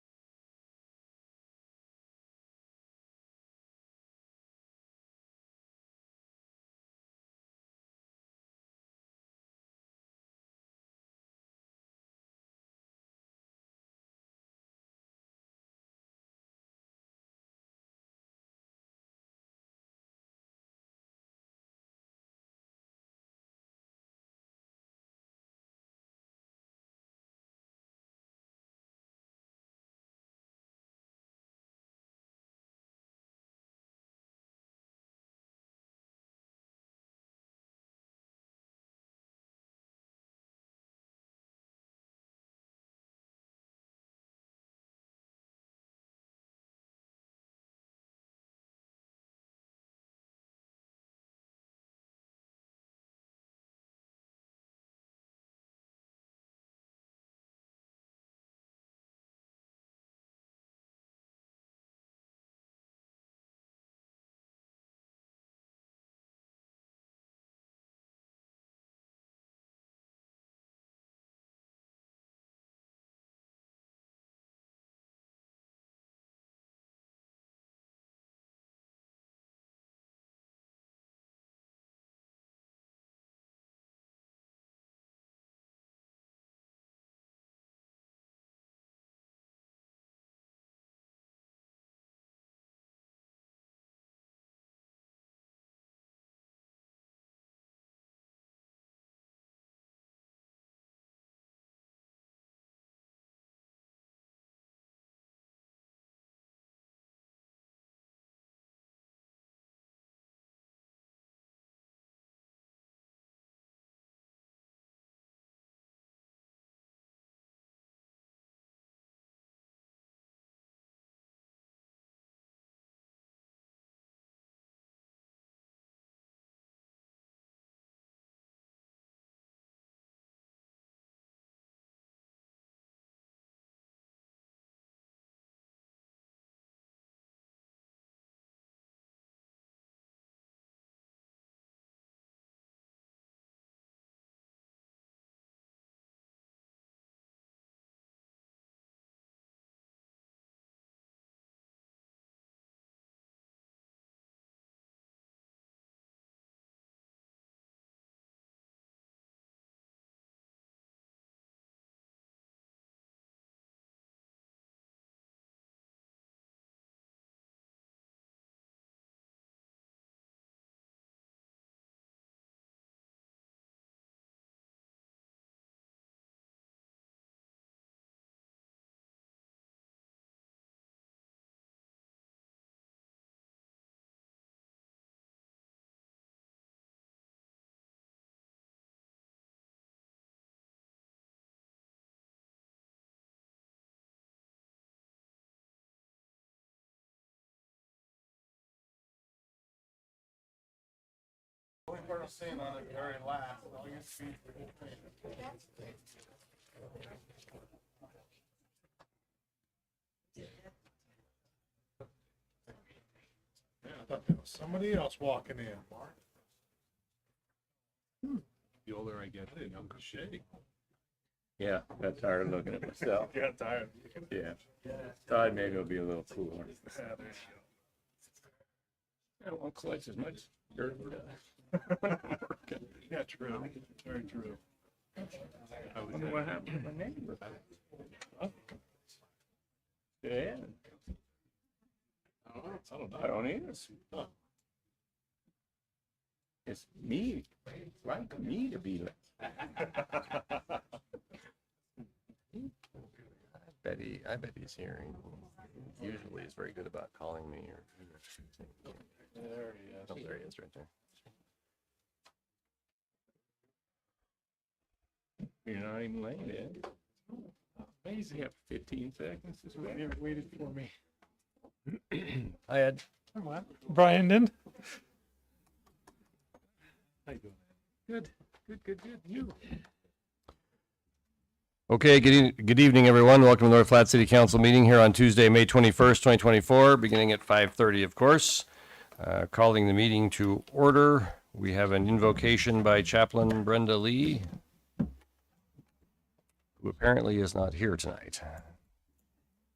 what I'm saying on the very last, all you see is the whole thing. Man, I thought there was somebody else walking in. Hmm. The older I get, the younger shake. Yeah, I got tired of looking at myself. Got tired. Yeah. Thought maybe it'll be a little cooler. I don't want to collect as much dirt as Yeah, true, very true. I was Wonder what happened to my neighbor. Yeah, I don't know. I don't know. I don't either. It's me, like me to be like. bet he, I bet he's hearing. Usually is very good about calling me or. There he is. Oh, there he is right there. You're not even laying it. Amazing, after fifteen seconds, this They way. never waited for me. Hi, Ed. Come on. Brian did. How you doing? Good, good, good, good, you. Okay, good, e- good evening, everyone. Welcome to North Flat City Council meeting here on Tuesday, May 21st, 2024, beginning at 5:30, of course. Uh, Calling the meeting to order. We have an invocation by Chaplain Brenda Lee, who apparently is not here tonight.